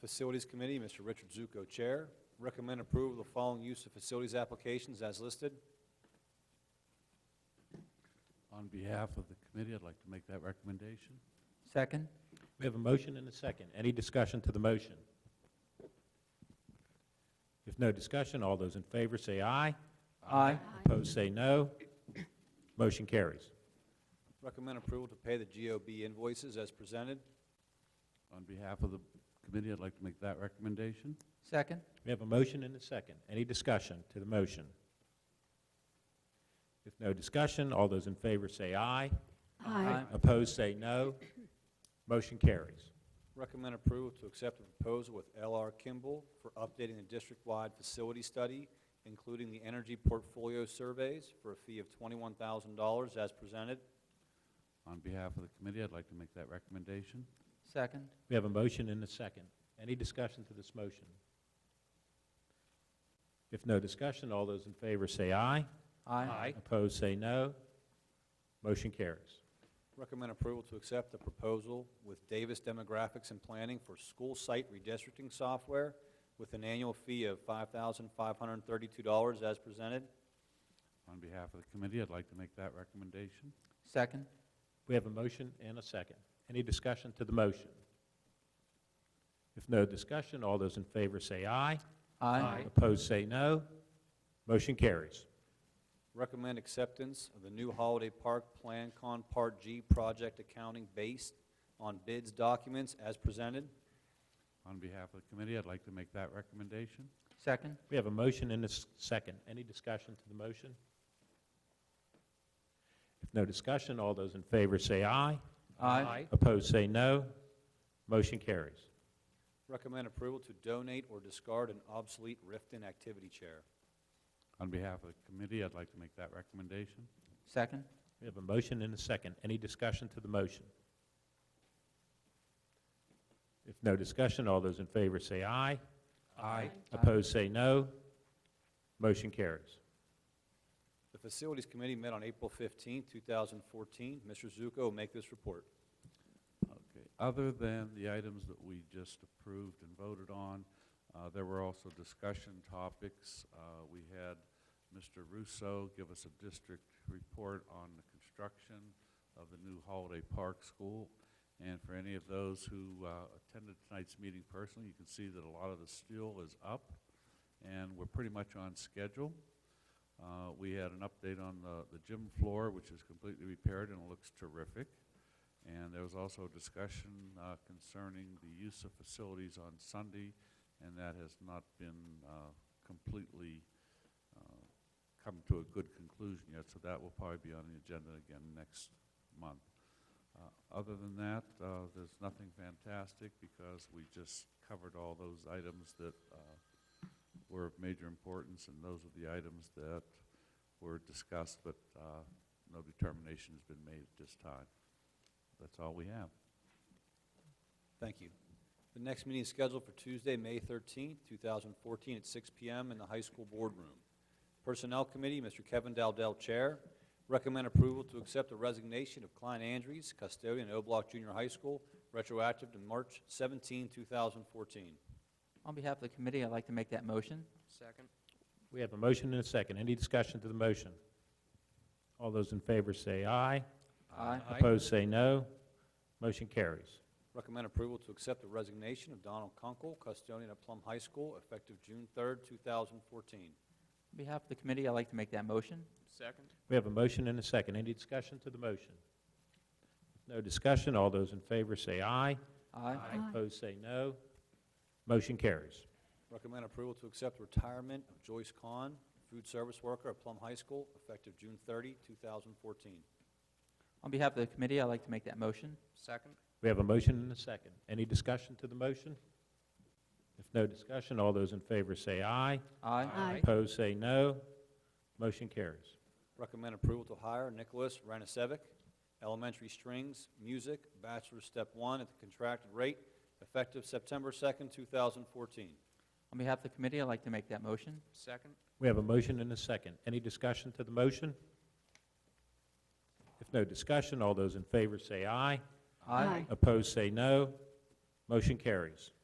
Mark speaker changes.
Speaker 1: Facilities Committee, Mr. Richard Zuko, Chair. Recommend approval of the following use of facilities applications as listed.
Speaker 2: On behalf of the committee, I'd like to make that recommendation.
Speaker 3: Second?
Speaker 4: We have a motion and a second. Any discussion to the motion? If no discussion, all those in favor say aye.
Speaker 3: Aye.
Speaker 4: Opposed, say no. Motion carries.
Speaker 1: Recommend approval to pay the GOB invoices as presented.
Speaker 2: On behalf of the committee, I'd like to make that recommendation.
Speaker 3: Second?
Speaker 4: We have a motion and a second. Any discussion to the motion? If no discussion, all those in favor say aye.
Speaker 3: Aye.
Speaker 4: Opposed, say no. Motion carries.
Speaker 1: Recommend approval to accept a proposal with LR Kimball for updating the district-wide facility study, including the energy portfolio surveys, for a fee of twenty-one thousand dollars as presented.
Speaker 2: On behalf of the committee, I'd like to make that recommendation.
Speaker 3: Second?
Speaker 4: We have a motion and a second. Any discussion to this motion? If no discussion, all those in favor say aye. Opposed, say no. Motion carries.
Speaker 1: Recommend approval to accept the proposal with Davis Demographics and Planning for school site redistricting software with an annual fee of five thousand five hundred and thirty-two dollars as presented.
Speaker 2: On behalf of the committee, I'd like to make that recommendation.
Speaker 3: Second?
Speaker 4: We have a motion and a second. Any discussion to the motion? If no discussion, all those in favor say aye. Opposed, say no. Motion carries.
Speaker 1: Recommend acceptance of the new Holiday Park Plan Con Part G project accounting based on bids documents as presented.
Speaker 2: On behalf of the committee, I'd like to make that recommendation.
Speaker 3: Second?
Speaker 4: We have a motion and a s- second. Any discussion to the motion? If no discussion, all those in favor say aye. Opposed, say no. Motion carries.
Speaker 1: Recommend approval to donate or discard an obsolete Rifton activity chair.
Speaker 2: On behalf of the committee, I'd like to make that recommendation.
Speaker 3: Second?
Speaker 4: We have a motion and a second. Any discussion to the motion? If no discussion, all those in favor say aye. Aye. Opposed, say no. Motion carries.
Speaker 1: The Facilities Committee met on April 15, 2014. Mr. Zuko will make this report.
Speaker 2: Okay, other than the items that we just approved and voted on, uh, there were also discussion topics. Uh, We had Mr. Russo give us a district report on the construction of the new Holiday Park School. And for any of those who uh, attended tonight's meeting personally, you can see that a lot of the steel is up, and we're pretty much on schedule. Uh, We had an update on the the gym floor, which is completely repaired and looks terrific. And there was also discussion uh, concerning the use of facilities on Sunday, and that has not been uh, completely uh, come to a good conclusion yet, so that will probably be on the agenda again next month. Uh, Other than that, uh, there's nothing fantastic because we just covered all those items that uh, were of major importance, and those are the items that were discussed, but uh, no determination has been made at this time. That's all we have.
Speaker 1: Thank you. The next meeting is scheduled for Tuesday, May 13, 2014, at 6 p.m. in the high school boardroom. Personnel Committee, Mr. Kevin Dowdell, Chair. Recommend approval to accept the resignation of Klein Andrews, custodian at O'Block Junior High School, retroactive to March 17, 2014.
Speaker 3: On behalf of the committee, I'd like to make that motion.
Speaker 5: Second.
Speaker 4: We have a motion and a second. Any discussion to the motion? All those in favor say aye.
Speaker 3: Aye.
Speaker 4: Opposed, say no. Motion carries.
Speaker 1: Recommend approval to accept the resignation of Donald Kunkel, custodian at Plum High School, effective June 3, 2014.
Speaker 3: On behalf of the committee, I'd like to make that motion.
Speaker 5: Second.
Speaker 4: We have a motion and a second. Any discussion to the motion? If no discussion, all those in favor say aye.
Speaker 3: Aye.
Speaker 4: Opposed, say no. Motion carries.
Speaker 1: Recommend approval to accept retirement of Joyce Kahn, food service worker at Plum High School, effective June 30, 2014.
Speaker 3: On behalf of the committee, I'd like to make that motion.
Speaker 5: Second.
Speaker 4: We have a motion and a second. Any discussion to the motion? If no discussion, all those in favor say aye.
Speaker 3: Aye.
Speaker 4: Opposed, say no. Motion carries.
Speaker 1: Recommend approval to hire Nicholas Ranasevic, elementary strings, music, bachelor's step one at the contracted rate, effective September 2, 2014.
Speaker 3: On behalf of the committee, I'd like to make that motion.
Speaker 5: Second.
Speaker 4: We have a motion and a second. Any discussion to the motion? If no discussion, all those in favor say aye. Opposed, say no. Motion carries.